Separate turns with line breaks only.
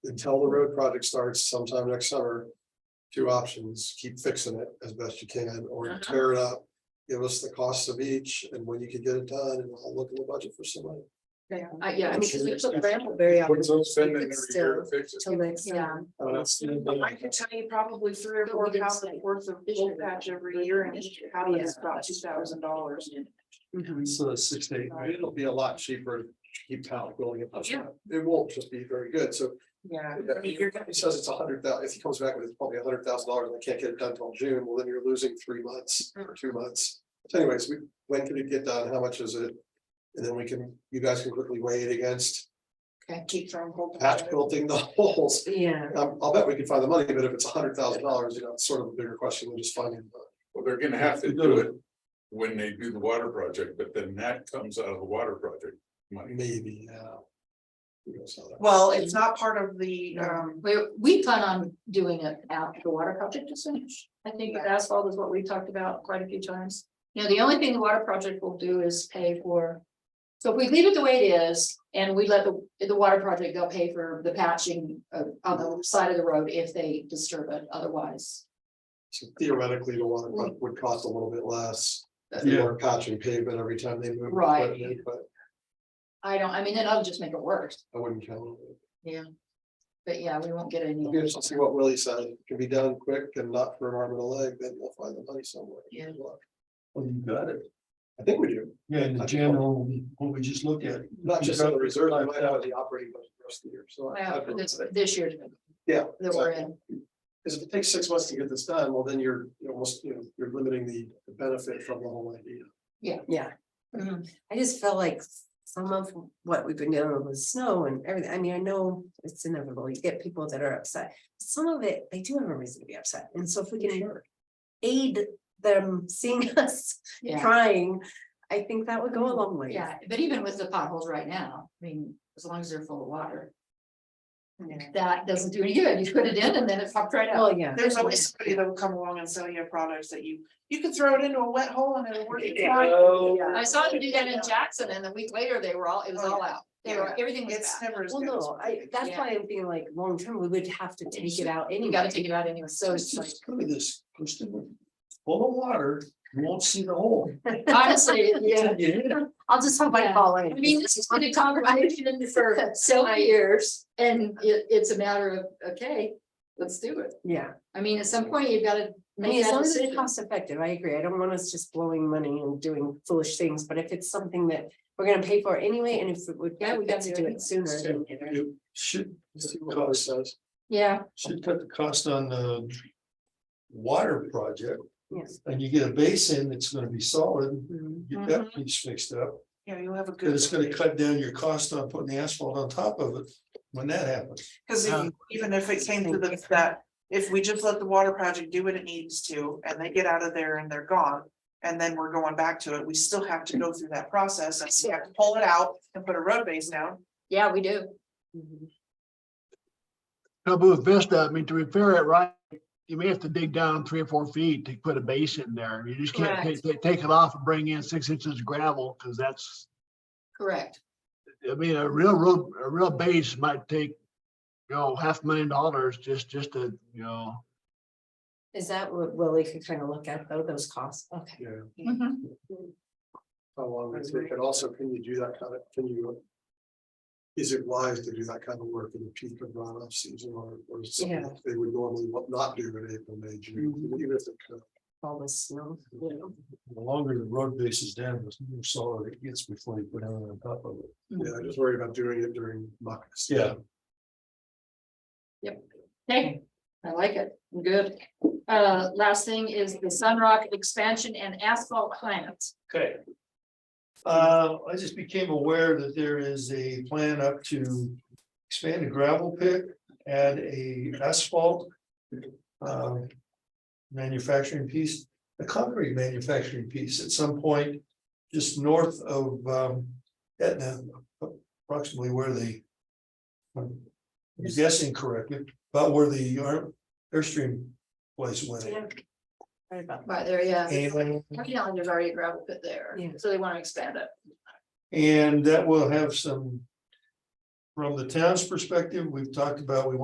until the road project starts sometime next summer. Two options, keep fixing it as best you can, or you
Uh-huh.
tear it up, give us the costs of each, and when you can get it done, and I'll look in the budget for some money.
Yeah, I- yeah, I mean, because we took Randall
Very
very.
often.
spend
it every year to
fix
Till next
Yeah.
time.
I don't know, it's-
I could tell you probably three or
But we
four
didn't
thousand
say.
worth of gold patch every year and each pound is about two thousand dollars.
So it's six to eight, right? it'll be a lot cheaper, to keep town building it.
Yeah.
It won't just be very good, so
Yeah.
I mean, your company says it's a hundred thousand, if he comes back with it's probably a hundred thousand dollars and they can't get it done till June, well, then you're losing three months
Mm.
or two months. So anyways, we, when can it get done? How much is it? And then we can, you guys can quickly weigh it against
Okay, keep throwing gold. patch.
patch building the holes.
Yeah.
Um, I'll bet we can find the money, but if it's a hundred thousand dollars, you know, it's sort of a bigger question than just finding. the-
Well, they're gonna have to do it when they do the water project, but then that comes out of the water project money.
uh, Maybe, yeah. Who knows how that-
Well, it's not part of the, um,
We, we plan on doing it after the water project is finished.
I think
Yeah.
that asphalt is what we talked about quite a few times.
You know, the only thing the water project will do is pay for. So if we leave it the way it is and we let the, the water project, they'll pay for the patching uh, on the side of the road if they disturb it otherwise.
So Theoretically, the water
Mm.
would- would cost a little bit less. if they were patching pavement every time they move.
Right.
equipment, But
I don't, I mean, then I'll just make it worse,
I wouldn't count on it.
but yeah, we won't get any.
We'll just see what Willie said, It can be done quick and not for an arm and a leg, then we'll find the money somewhere.
Yeah.
Good luck.
Well, you got it.
I think we do,
Yeah, in the general, what we just looked at.
not just on the reserve, I might have the operating budget for the rest of the year, so. I-
Well,
I'd-
this, this year
Yeah.
that we're in.
Because if it takes six months to get this done, well, then you're you're almost, you know, you're limiting the the benefit from the whole idea.
Yeah.
Mhm.
I just felt like some of what we've been dealing with with snow and everything. I mean, I know it's inevitable. You get people that are upset. Some of it, they do have a reason to be upset. And so if we can aid them seeing us
Yeah, Mm-hmm.
trying, I think that would go a long way.
yeah, but even with the potholes right now, I mean, as long as they're full of water, that doesn't do any good. You put it in and then it popped right out.
Well, yeah.
There's always somebody that will come along and sell you products that you, you could throw it into a wet hole and it'll work.
I saw them do that in Jackson and a week later they were all, it was all out. Oh, They were, everything was
It's
bad.
never. as
Well,
good as
no,
what
I,
it
that's
Yeah.
why I'm being like, long term, we would have to take it out
You
anyway.
gotta take it out anyway. So
Let's
it's like,
just go to this, push them full of water, you won't see the hole.
honestly, yeah.
You hit it.
I'll just hope I
Yeah.
fall
I
in.
mean, this has been a conversation for several years and it, it's a matter of, okay, let's do it.
Yeah,
I mean, at some point you've gotta
I mean,
make
as
that
long as it's
decision.
cost effective, I agree. I don't want us just blowing money and doing foolish things, but if it's something that we're gonna pay for anyway, and if it would.
Yeah, we
got
gotta
to
do
do
it.
it sooner. than later.
You Should,
See what Willie says.
Yeah,
should cut the cost on the water project,
Yes.
and you get a basin that's gonna be solid,
Mhm.
get that piece fixed up.
Yeah, you'll have a good.
And it's gonna cut down your cost on putting the asphalt on top of it when that happens.
Cause if-
Um,
even if it came to the, that, if we just let the water project do what it needs to, and they get out of there and they're gone. And then we're going back to it, we still have to go through that process, and we have to pull it out and put a road base down.
yeah, we do.
Mhm.
No, but with Vista, I mean, to repair it right, you may have to dig down three or four feet to put a base in there. You just can't take, take- take it off and bring in six inches of gravel, because that's,
Correct.
I mean, a real road, a real base might take, you know, half a million dollars just, just to, you know.
Is that what Willie could kind of look at though, those costs? Okay.
Yeah.
Mhm.
How long it take, and also, can you do that kind of, can you? Is it wise to do that kind of work in the peak of runoff season or, or something
Yeah. Mm-hmm.
that they would normally wa- not do in April, May, June, even if they could?
All the snow. you know.
The longer the road base is down, the more solid it gets before you put anything on top of it.
Yeah, I just worry about doing it during muck. season.
Yeah.
Hey, I like it. Good. Uh, last thing is the Sunrock expansion and asphalt plant.
Okay. Uh, I just became aware that there is a plan up to expand the gravel pit, add a asphalt. um, Manufacturing piece, a concrete manufacturing piece at some point, just north of um, Etna, approximately where the. I'm guessing correctly, about where the Air- Airstream place went.
Yeah. Right about
Right there, yeah.
And-
Turkey Island, there's already a gravel pit there,
Yeah.
so they want to expand it.
And that will have some. From the town's perspective, we've talked about, we want